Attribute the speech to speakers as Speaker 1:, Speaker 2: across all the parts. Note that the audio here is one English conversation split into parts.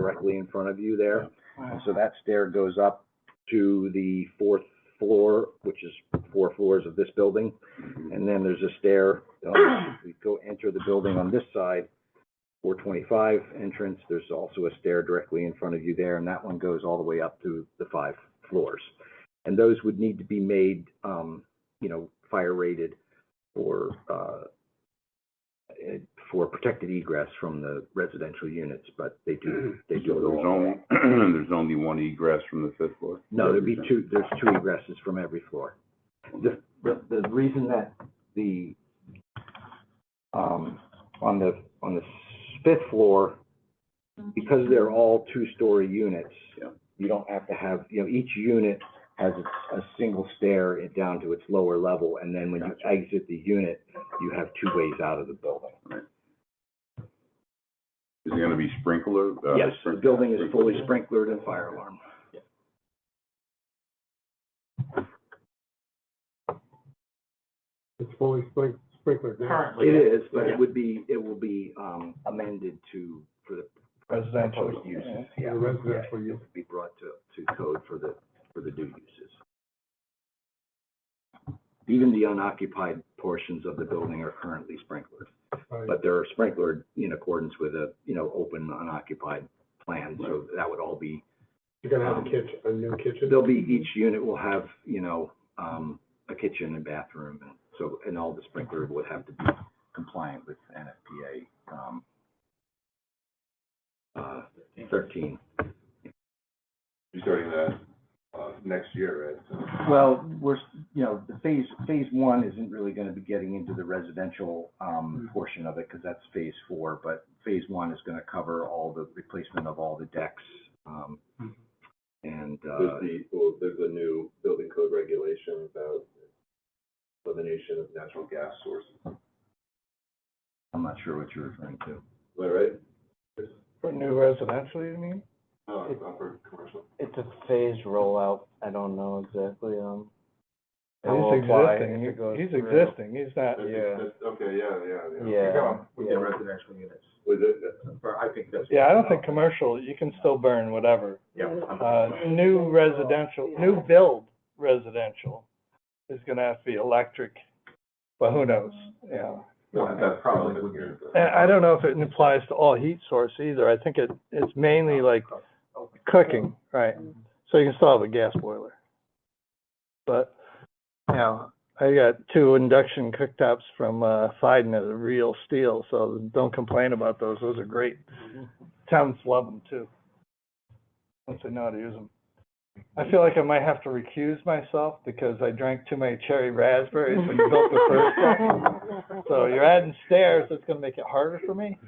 Speaker 1: directly in front of you there. And so that stair goes up to the fourth floor, which is four floors of this building. And then there's a stair, um, we go enter the building on this side, four twenty-five entrance. There's also a stair directly in front of you there, and that one goes all the way up to the five floors. And those would need to be made, um, you know, fire rated or, uh, eh, for protected egress from the residential units, but they do, they do.
Speaker 2: So
Speaker 1: it
Speaker 2: there's
Speaker 1: all.
Speaker 2: only, there's only one egress from the fifth floor?
Speaker 1: No, there'd be two, there's two egresses from every floor. The, the, the reason that the, um, on the, on the fifth floor, because they're all two-story units,
Speaker 2: Yeah.
Speaker 1: you don't have to have, you know, each unit has a, a single stair it down to its lower level, and then when you exit the unit, you have two ways out of the building.
Speaker 2: Is it gonna be sprinkler? uh,
Speaker 1: Yes, the
Speaker 2: sprink-
Speaker 1: building is fully
Speaker 2: sprinkler?
Speaker 1: sprinklered and fire alarm.
Speaker 3: It's fully sprink- sprinklered now.
Speaker 1: It is, but it would be, it will be, um, amended to, for the residential uses, yeah.
Speaker 3: For the residential
Speaker 1: Yeah,
Speaker 3: use.
Speaker 1: it would Be brought to, to code for the, for the new uses. Even the unoccupied portions of the building are currently sprinklered,
Speaker 3: Right.
Speaker 1: but they're sprinklered in accordance with a, you know, open unoccupied plan, so that would all be,
Speaker 3: You're gonna have a kitchen, a new kitchen?
Speaker 1: there'll be, each unit will have, you know, um, a kitchen and bathroom, and so, and all the sprinkler would have to be compliant with NFPA, um, uh, thirteen.
Speaker 4: You're starting that, uh, next year, right?
Speaker 1: Well, we're, you know, the phase, phase one isn't really gonna be getting into the residential, um, portion of it, because that's phase four, but phase one is gonna cover all the replacement of all the decks, um, and, uh,
Speaker 4: There's the, well, there's a new building code regulation about elimination of natural gas sources.
Speaker 1: I'm not sure what you're referring to.
Speaker 4: Am I right?
Speaker 5: For new residential, you mean?
Speaker 4: No, it's not for commercial.
Speaker 5: It's a phased rollout, I don't know exactly, um. it will
Speaker 6: He's
Speaker 5: apply
Speaker 6: existing,
Speaker 5: if it goes
Speaker 6: He- he's
Speaker 5: through.
Speaker 6: existing, he's not,
Speaker 4: That's-
Speaker 5: Yeah.
Speaker 4: that's- Okay, yeah, yeah, yeah.
Speaker 5: Yeah, yeah.
Speaker 3: residential units,
Speaker 4: Was it, that-
Speaker 3: or I think that's.
Speaker 6: yeah, I don't think commercial, you can still burn whatever. Uh, new residential, new build residential is gonna have to be electric, but who knows, yeah.
Speaker 4: no, that's probably what you're.
Speaker 5: Uh,
Speaker 6: And I don't know if it applies to all heat source either, I think it, it's mainly like cooking, right? So you can still have a gas boiler. But, you know, I got two induction cooktops from, uh, Fiden that are real steel, so don't complain about those, those are great. Towns love them too. Once they know how to use them. I feel like I might have to recuse myself because I drank too many cherry raspberries when you built the first one. So you're adding stairs, it's gonna make it harder for me?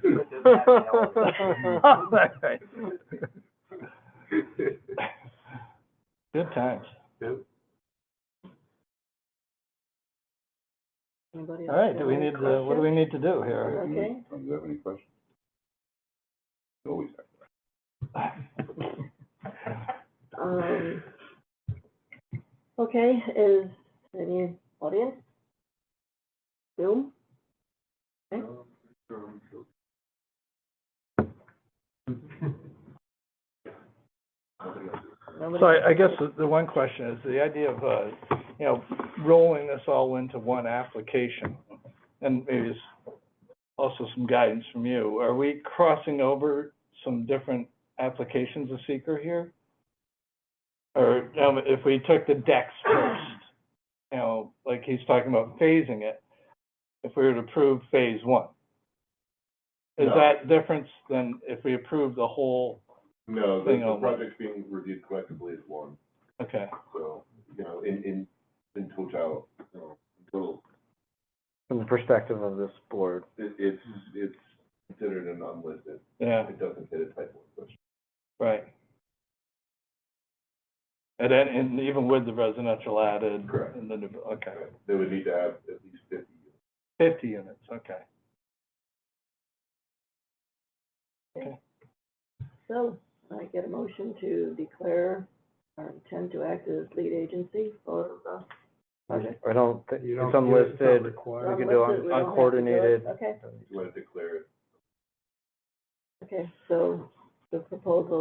Speaker 6: Good times.
Speaker 7: Anybody
Speaker 6: All
Speaker 7: else
Speaker 6: right,
Speaker 7: got
Speaker 6: do we
Speaker 7: any
Speaker 6: need to, what do we need to do here?
Speaker 7: Okay.
Speaker 2: Do you have any questions? Always.
Speaker 7: questions? Um, Okay, is any audience? Zoom? Okay. Nobody?
Speaker 6: So I, I guess the, the one question is, the idea of, uh, you know, rolling this all into one application, and maybe it's also some guidance from you, are we crossing over some different applications of seeker here? Or, um, if we took the decks first, you know, like he's talking about phasing it, if we were to approve phase one? Is
Speaker 4: No.
Speaker 6: that difference than if we approve the whole,
Speaker 4: No, the,
Speaker 6: Thing
Speaker 4: the
Speaker 6: on.
Speaker 4: project being reviewed collectively is one,
Speaker 6: okay?
Speaker 4: so, you know, in, in, in total, you know, in total,
Speaker 5: From the perspective of this board.
Speaker 4: it, it's, it's considered an unlisted,
Speaker 6: Yeah,
Speaker 4: it doesn't fit a type one question.
Speaker 6: right. And then, and even with the residential added.
Speaker 4: Correct.
Speaker 6: And the, new- okay,
Speaker 4: They would need to have at least fifty units.
Speaker 6: fifty units, okay.
Speaker 7: So, I get a motion to declare our intent to act as lead agency for the project.
Speaker 5: I don't, thi-
Speaker 3: You don't- you-
Speaker 5: it's
Speaker 3: it's not
Speaker 5: unlisted,
Speaker 3: required.
Speaker 5: we can do
Speaker 7: Unlisted, we
Speaker 5: un-
Speaker 7: don't have to do it.
Speaker 5: uncoordinated.
Speaker 7: Okay,
Speaker 4: You want to declare it
Speaker 7: okay, so the proposal